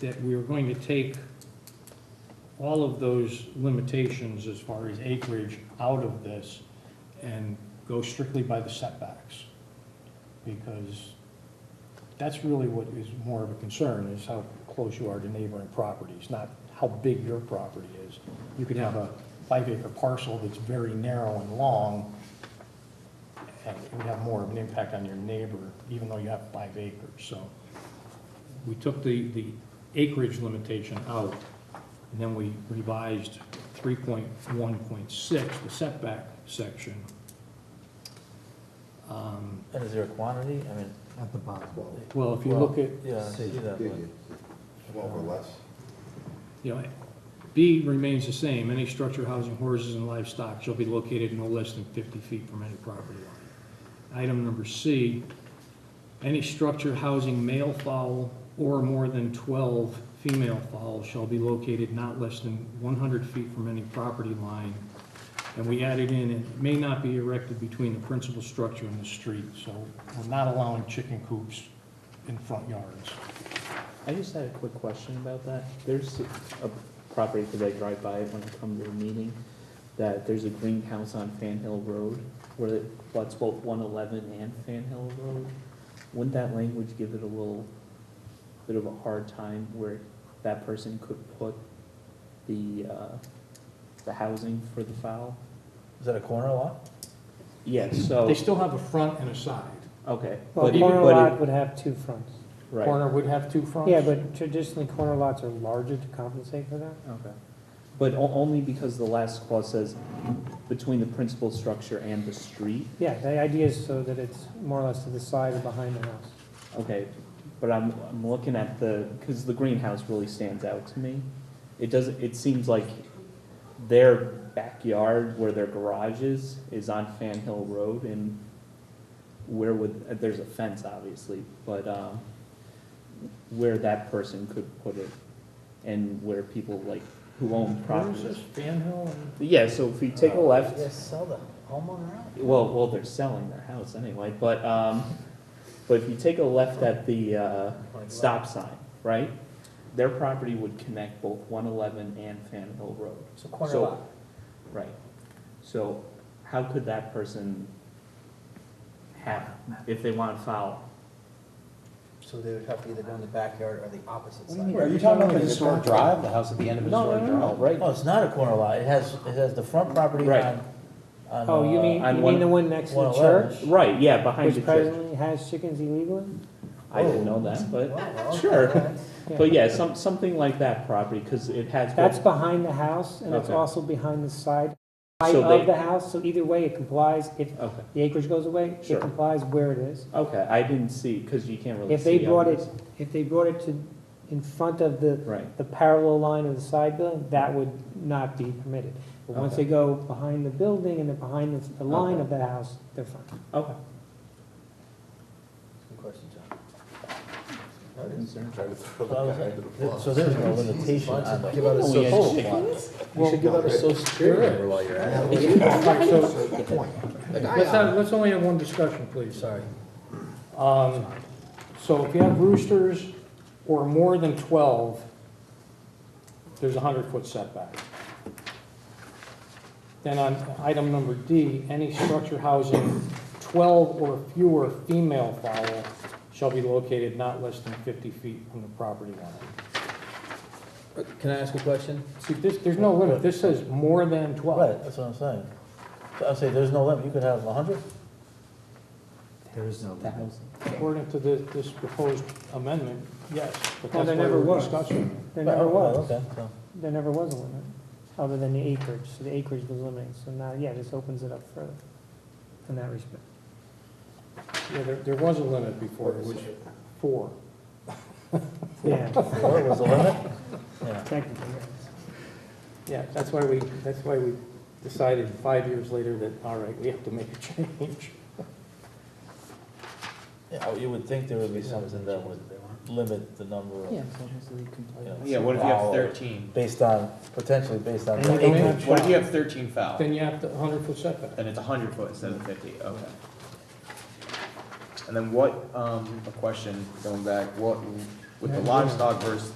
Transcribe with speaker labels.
Speaker 1: that we were going to take all of those limitations as far as acreage out of this and go strictly by the setbacks. Because that's really what is more of a concern, is how close you are to neighboring properties, not how big your property is. You could have a five acre parcel that's very narrow and long, and it would have more of an impact on your neighbor, even though you have five acres, so. We took the, the acreage limitation out, and then we revised three point one point six, the setback section. Um,
Speaker 2: And is there a quantity? I mean,
Speaker 3: At the bottom.
Speaker 1: Well, if you look at,
Speaker 4: uh,
Speaker 2: yeah, I see that, but
Speaker 4: Twelve or less.
Speaker 1: you know, B remains the same, any structure housing horses and livestock shall be located no less than fifty feet from any property line. Item number C, any structure housing male fowl or more than twelve female fowl shall be located not less than one hundred feet from any property line. And we added in, it may not be erected between the principal structure and the street, so we're not allowing chicken coops in front yards.
Speaker 5: I just had a quick question about that. There's a property, because I drive by it when I come to a meeting, that there's a greenhouse on Fan Hill Road, where it floods both one eleven and Fan Hill Road. Wouldn't that language give it a little bit of a hard time where that person could put the, uh, the housing for the fowl?
Speaker 2: is that a corner lot?
Speaker 5: Yes, so,
Speaker 1: They still have a front and a side.
Speaker 5: okay.
Speaker 3: Well,
Speaker 5: but it-
Speaker 3: corner
Speaker 5: but it-
Speaker 3: lot would have two fronts.
Speaker 5: Right,
Speaker 1: corner would have two fronts?
Speaker 3: Yeah, but traditionally, corner lots are larger to compensate for that.
Speaker 5: okay. But o- only because the last clause says, between the principal structure and the street.
Speaker 3: Yeah, the idea is so that it's more or less to the side or behind the house.
Speaker 5: Okay, but I'm, I'm looking at the, because the greenhouse really stands out to me. It doesn't, it seems like their backyard where their garage is, is on Fan Hill Road and where would, uh, there's a fence obviously, but, um, where that person could put it and where people like, who own properties.
Speaker 1: Fan Hill?
Speaker 5: Yeah, so if we take a left,
Speaker 2: Yeah, sell the homeowner out.
Speaker 5: well, well, they're selling their house anyway, but, um, but if you take a left at the, uh, stop sign, right? Their property would connect both one eleven and Fan Hill Road,
Speaker 2: So corner
Speaker 5: So-
Speaker 2: lot.
Speaker 5: right? So how could that person have, if they want to foul?
Speaker 2: So they would have to either go in the backyard or the opposite
Speaker 3: What do you
Speaker 2: side.
Speaker 3: mean?
Speaker 6: Are you talking about the historic drive, the house at the end of
Speaker 5: No, no,
Speaker 6: historic
Speaker 5: no, no.
Speaker 6: drive, right?
Speaker 2: No, Oh, it's not a corner lot. It has, it has the front property
Speaker 5: Right.
Speaker 2: on, on.
Speaker 3: Oh, you
Speaker 2: uh,
Speaker 3: mean,
Speaker 5: on
Speaker 3: you
Speaker 5: one-
Speaker 3: mean the one next to the
Speaker 2: 111.
Speaker 3: church?
Speaker 5: Right, yeah, behind the
Speaker 3: Which Oh.
Speaker 5: church.
Speaker 3: presently has chickens illegally?
Speaker 5: I didn't know that, but, sure.
Speaker 3: Yeah.
Speaker 5: But yeah, some, something like that property, because it has.
Speaker 3: That's behind the house, and it's
Speaker 5: Okay.
Speaker 3: also behind the side, side
Speaker 5: So they-
Speaker 3: of the house, so either way, it complies. If
Speaker 5: Okay,
Speaker 3: the acreage goes away,
Speaker 5: Sure.
Speaker 3: it complies where it is.
Speaker 5: okay, I didn't see, because you can't really
Speaker 3: If
Speaker 5: see.
Speaker 3: they brought it,
Speaker 5: others.
Speaker 3: if they brought it to, in front of the
Speaker 5: Right.
Speaker 3: the parallel line of the side building, that would not be permitted. But once
Speaker 5: Okay.
Speaker 3: they go behind the building and they're behind the, the line
Speaker 5: Okay.
Speaker 3: of the house, they're fine.
Speaker 5: Okay.
Speaker 2: Good question, John.
Speaker 4: Trying to throw
Speaker 2: So I
Speaker 4: the
Speaker 2: was
Speaker 4: guy into the
Speaker 2: like-
Speaker 4: bus.
Speaker 2: So there's no limitation on the.
Speaker 4: Give out a
Speaker 2: total
Speaker 4: social-
Speaker 2: lot.
Speaker 4: You should give out a social security number while you're at it.
Speaker 1: Let's have, let's only have one discussion, please, sorry. Um, So if you have roosters or more than 12, there's a 100-foot setback. Then on item number D, any structure housing 12 or fewer female fowl shall be located not less than 50 feet from the property line.
Speaker 7: Can I ask a question?
Speaker 1: See, this, there's no limit, this says more than 12.
Speaker 2: Right, that's what I'm saying. So I'm saying there's no limit. You could have a hundred.
Speaker 6: There is no.
Speaker 1: According to this, this proposed amendment, yes, but
Speaker 3: Well,
Speaker 1: that's
Speaker 3: there
Speaker 1: why
Speaker 3: never
Speaker 1: we're
Speaker 3: was.
Speaker 1: discussing.
Speaker 3: There never was,
Speaker 2: Okay, so.
Speaker 3: there never was a limit, other than the acreage, so the acreage was limited, so now, yeah, this opens it up further in that respect.
Speaker 1: it. Yeah, there, there was a limit before, it was four.
Speaker 3: Yeah,
Speaker 2: Four was the limit? Yeah.
Speaker 3: technically,
Speaker 1: Yeah, that's why we, that's why we decided five years later that, all right, we have to make a change.
Speaker 2: Yeah, you would think there would be something that would limit the number of,
Speaker 5: Yeah.
Speaker 2: you know,
Speaker 6: Yeah, what if you have
Speaker 2: fowl
Speaker 6: thirteen?
Speaker 2: Based on, potentially based on.
Speaker 1: And you don't have
Speaker 6: What if you have thirteen foul?
Speaker 1: Then you have the hundred foot setback.
Speaker 6: Then it's hundred foot instead of fifty, okay. And then what, um, a question, going back, what, with the livestock versus